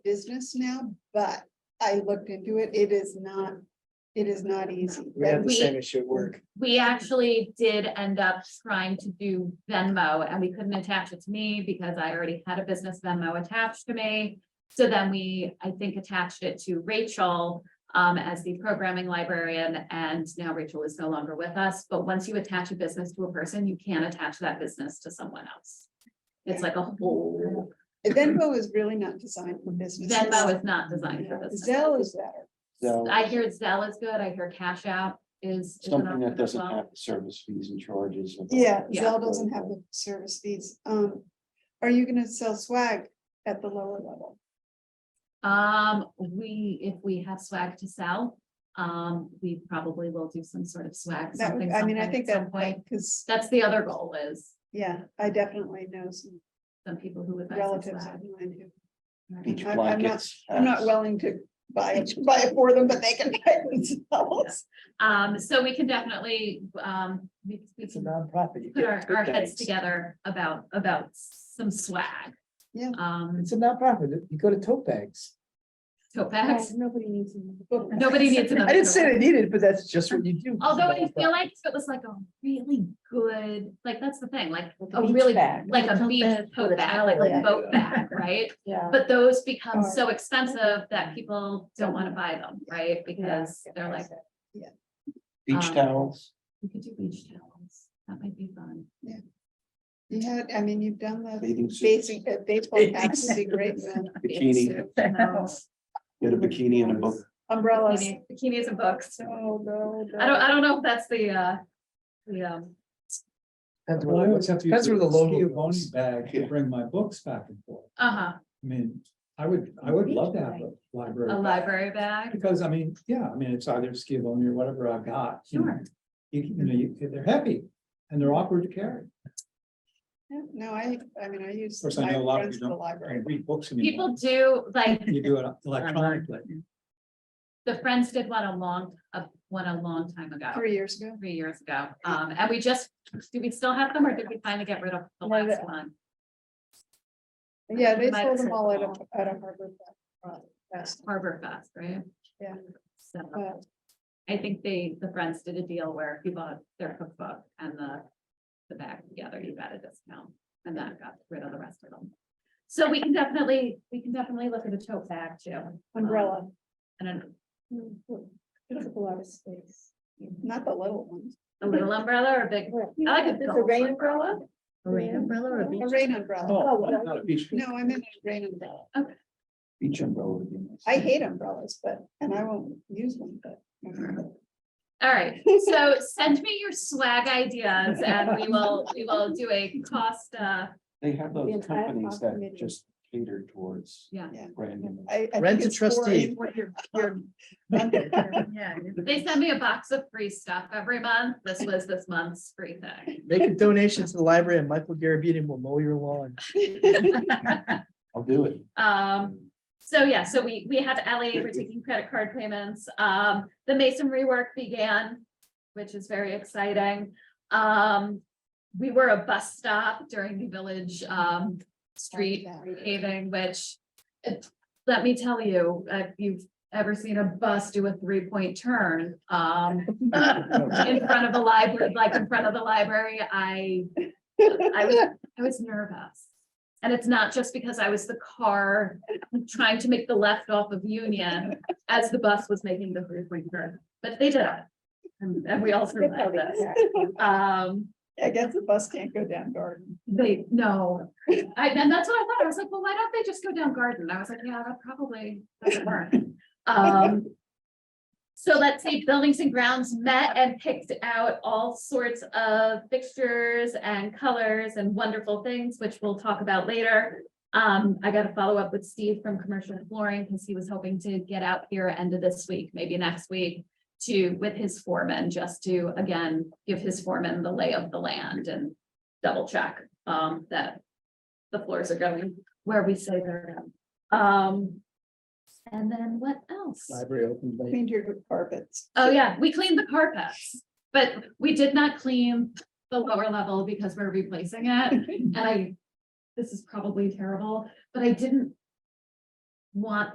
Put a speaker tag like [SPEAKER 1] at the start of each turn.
[SPEAKER 1] business now, but I looked into it. It is not, it is not easy.
[SPEAKER 2] We had the
[SPEAKER 3] We-
[SPEAKER 2] same issue at work.
[SPEAKER 3] We actually did end up trying to do Venmo and we couldn't attach it to me because I already had a business Venmo attached to me. So then we, I think, attached it to Rachel um, as the programming librarian and now Rachel is no longer with us. But once you attach a business to a person, you can't attach that business to someone else. It's like a whole,
[SPEAKER 1] Venmo is really not designed for business.
[SPEAKER 3] Venmo is not designed for business.
[SPEAKER 1] Zelle is better.
[SPEAKER 4] So
[SPEAKER 3] I hear Zelle is good. I hear Cash App is. is an
[SPEAKER 4] something
[SPEAKER 3] option
[SPEAKER 4] that
[SPEAKER 3] as
[SPEAKER 4] doesn't
[SPEAKER 3] well.
[SPEAKER 4] have service fees and charges. and-
[SPEAKER 1] Yeah,
[SPEAKER 3] Yeah.
[SPEAKER 1] Zelle doesn't have the service fees. Um, are you gonna sell swag at the lower level?
[SPEAKER 3] Um, we, if we have swag to sell, um, we probably will do some sort of swag,
[SPEAKER 1] That,
[SPEAKER 3] something,
[SPEAKER 1] would- I mean,
[SPEAKER 3] something
[SPEAKER 1] I think
[SPEAKER 3] at some
[SPEAKER 1] that,
[SPEAKER 3] point.
[SPEAKER 1] because,
[SPEAKER 3] That's the other goal is
[SPEAKER 1] yeah, I definitely know some
[SPEAKER 3] some people who would buy some
[SPEAKER 1] relatives
[SPEAKER 3] swag.
[SPEAKER 1] of mine who
[SPEAKER 4] Beach
[SPEAKER 1] I'm- I'm not-
[SPEAKER 4] blankets.
[SPEAKER 2] Uh,
[SPEAKER 4] uh,
[SPEAKER 1] I'm not
[SPEAKER 4] hats.
[SPEAKER 1] willing to buy, it- buy it for them, but they can buy it themselves.
[SPEAKER 3] Um, so we can definitely, um, we, we
[SPEAKER 2] It's a
[SPEAKER 3] can
[SPEAKER 2] nonprofit. you
[SPEAKER 3] put
[SPEAKER 2] get
[SPEAKER 3] our,
[SPEAKER 2] good
[SPEAKER 3] our heads
[SPEAKER 2] things.
[SPEAKER 3] together about, about some swag.
[SPEAKER 1] Yeah.
[SPEAKER 3] Um,
[SPEAKER 2] It's a nonprofit. You go to tote bags.
[SPEAKER 3] tote bags.
[SPEAKER 1] Nobody needs.
[SPEAKER 3] Nobody needs another
[SPEAKER 2] I didn't say
[SPEAKER 3] tote
[SPEAKER 2] they needed, but that's just what you do.
[SPEAKER 3] Although I feel like if it was like a really good, like, that's the thing, like,
[SPEAKER 5] Like a
[SPEAKER 3] a
[SPEAKER 5] beach
[SPEAKER 3] really,
[SPEAKER 5] bag.
[SPEAKER 3] like
[SPEAKER 5] Like a
[SPEAKER 3] a
[SPEAKER 5] tote
[SPEAKER 3] beach
[SPEAKER 5] bag with
[SPEAKER 3] tote
[SPEAKER 5] a
[SPEAKER 3] bag,
[SPEAKER 5] towel
[SPEAKER 3] like a
[SPEAKER 5] in it.
[SPEAKER 3] boat bag, right?
[SPEAKER 5] Yeah.
[SPEAKER 3] But those become
[SPEAKER 1] Or-
[SPEAKER 3] so expensive that people don't wanna buy them, right? Because they're like,
[SPEAKER 4] Beach
[SPEAKER 3] um,
[SPEAKER 4] towels.
[SPEAKER 3] we could do beach towels, that might be fun.
[SPEAKER 1] You had, I mean, you've done the
[SPEAKER 4] bathing suits,
[SPEAKER 1] basic, uh, baseball caps would be great, man.
[SPEAKER 4] Bikini,
[SPEAKER 3] Suits, no.
[SPEAKER 4] get a bikini and a book.
[SPEAKER 1] umbrellas.
[SPEAKER 3] Bikini- Bikinis and books,
[SPEAKER 1] No, no,
[SPEAKER 3] I don't,
[SPEAKER 1] no.
[SPEAKER 3] I don't know if that's the, uh, the, um,
[SPEAKER 2] Depends
[SPEAKER 6] Well, I
[SPEAKER 2] where
[SPEAKER 6] always
[SPEAKER 2] the-
[SPEAKER 6] have to
[SPEAKER 2] depends
[SPEAKER 6] use
[SPEAKER 2] where the
[SPEAKER 6] a
[SPEAKER 2] logo
[SPEAKER 6] Skio Boni
[SPEAKER 2] goes.
[SPEAKER 6] bag to bring my books back and forth.
[SPEAKER 3] uh-huh,
[SPEAKER 6] I mean, I would, I would love to have a library.
[SPEAKER 3] a
[SPEAKER 6] bag,
[SPEAKER 3] library bag,
[SPEAKER 6] Because I mean, yeah, I mean, it's either Skio Boni or whatever I've got. you know.
[SPEAKER 3] Sure.
[SPEAKER 6] You, you know, you, they're heavy and they're awkward to carry.
[SPEAKER 1] Yeah, No, I, I mean, I use.
[SPEAKER 6] Of course, I know a lot of
[SPEAKER 1] friends
[SPEAKER 6] you
[SPEAKER 1] to the
[SPEAKER 6] don't- I
[SPEAKER 1] library.
[SPEAKER 6] read books
[SPEAKER 3] people
[SPEAKER 6] anymore.
[SPEAKER 3] do, like,
[SPEAKER 6] You do it electronically.
[SPEAKER 3] the Friends did one a long, uh, one a long time ago.
[SPEAKER 1] Three years ago.
[SPEAKER 3] three years ago. Um, and we just, do we still have them or did we finally get rid of
[SPEAKER 1] No,
[SPEAKER 3] the last
[SPEAKER 1] the-
[SPEAKER 3] one?
[SPEAKER 1] Yeah, they
[SPEAKER 3] Might
[SPEAKER 1] sold
[SPEAKER 3] have
[SPEAKER 1] them all out
[SPEAKER 3] sold
[SPEAKER 1] of, out of Harvard. uh, Fest,
[SPEAKER 3] Harbor Fest, right?
[SPEAKER 1] Yeah.
[SPEAKER 3] So
[SPEAKER 1] but
[SPEAKER 3] I think they, the Friends did a deal where if you bought their cookbook and the, the bag together, you got a discount. And that got rid of the rest of them. So we can definitely, we can definitely look at a tote bag too.
[SPEAKER 1] Umbrella.
[SPEAKER 3] And an-
[SPEAKER 5] It's a lot of space.
[SPEAKER 1] Not the little ones.
[SPEAKER 3] a little umbrella or a big, I like a
[SPEAKER 5] Is
[SPEAKER 3] gold
[SPEAKER 5] rain
[SPEAKER 3] one.
[SPEAKER 5] umbrella? A
[SPEAKER 1] rain
[SPEAKER 5] umbrella
[SPEAKER 1] A rain umbrella.
[SPEAKER 6] Oh, I'm not a beach.
[SPEAKER 1] No, I meant a rain umbrella.
[SPEAKER 4] Beach umbrella. would be nice.
[SPEAKER 1] I hate umbrellas, but, and I won't use one, but.
[SPEAKER 3] All right, so send me your swag ideas and we will, we will do a cost, uh,
[SPEAKER 4] They have
[SPEAKER 5] The
[SPEAKER 4] those
[SPEAKER 5] entire
[SPEAKER 4] companies that
[SPEAKER 5] population.
[SPEAKER 4] just cater towards.
[SPEAKER 3] Yeah.
[SPEAKER 1] Yeah.
[SPEAKER 4] Random.
[SPEAKER 1] I- I think
[SPEAKER 2] Rent a
[SPEAKER 1] it's boring
[SPEAKER 2] trustee.
[SPEAKER 1] what you're- you're- Yeah.
[SPEAKER 3] They send me a box of free stuff every month. This was this month's free thing.
[SPEAKER 2] Make a donation to the library and Michael Garabedian will mow your lawn.
[SPEAKER 4] I'll do it.
[SPEAKER 3] Um, so yeah, so we, we have LA for taking credit card payments. Um, the masonry work began, which is very exciting. Um, we were a bus stop during the village, um, street paving, which, it- let me tell you, if you've ever seen a bus do a three-point turn, um, in front of the library, like in front of the library, I, I was, I was nervous. And it's not just because I was the car trying to make the left off of Union as the bus was making the three-point turn, but they did it. And and we all survived this. Um,
[SPEAKER 1] I guess the bus can't go down garden.
[SPEAKER 3] they, no, I, and that's what I thought. I was like, well, why don't they just go down garden? I was like, yeah, that probably doesn't work. Um. So let's say buildings and grounds met and picked out all sorts of fixtures and colors and wonderful things, which we'll talk about later. Um, I gotta follow up with Steve from Commercial Flooring because he was hoping to get out here end of this week, maybe next week. To, with his foreman, just to again, give his foreman the lay of the land and double check um that the floors are going where we say they're going. Um. And then what else?
[SPEAKER 2] Library open late.
[SPEAKER 1] Cleaned your carpets.
[SPEAKER 3] Oh, yeah, we cleaned the carpets, but we did not clean the lower level because we're replacing it. And I, this is probably terrible, but I didn't want